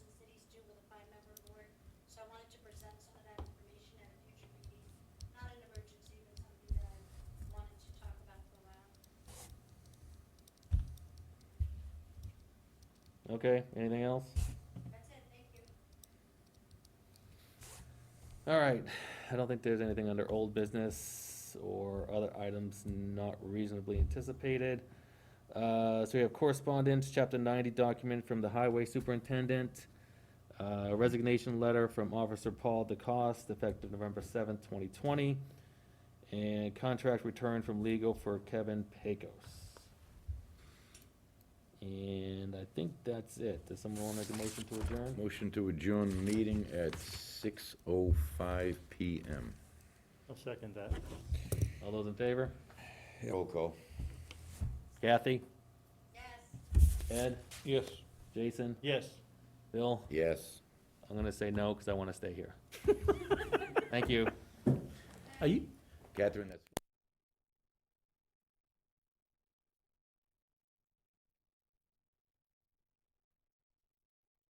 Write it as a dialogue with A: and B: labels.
A: Okay, anything else? All right, I don't think there's anything under old business or other items not reasonably anticipated. Uh, so we have correspondence, chapter ninety document from the highway superintendent. Uh, resignation letter from Officer Paul DeCoste, effective November seventh, twenty twenty. And contract return from legal for Kevin Pecos. And I think that's it. Does someone wanna make a motion to adjourn?
B: Motion to adjourn the meeting at 6:05 PM.
C: I'll second that.
A: All those in favor?
B: Roll call.
A: Kathy? Yes. Ed?
C: Yes.
A: Jason?
C: Yes.
A: Bill?
B: Yes.
A: I'm gonna say no, because I wanna stay here. Thank you.
C: Are you,
B: Catherine, that's...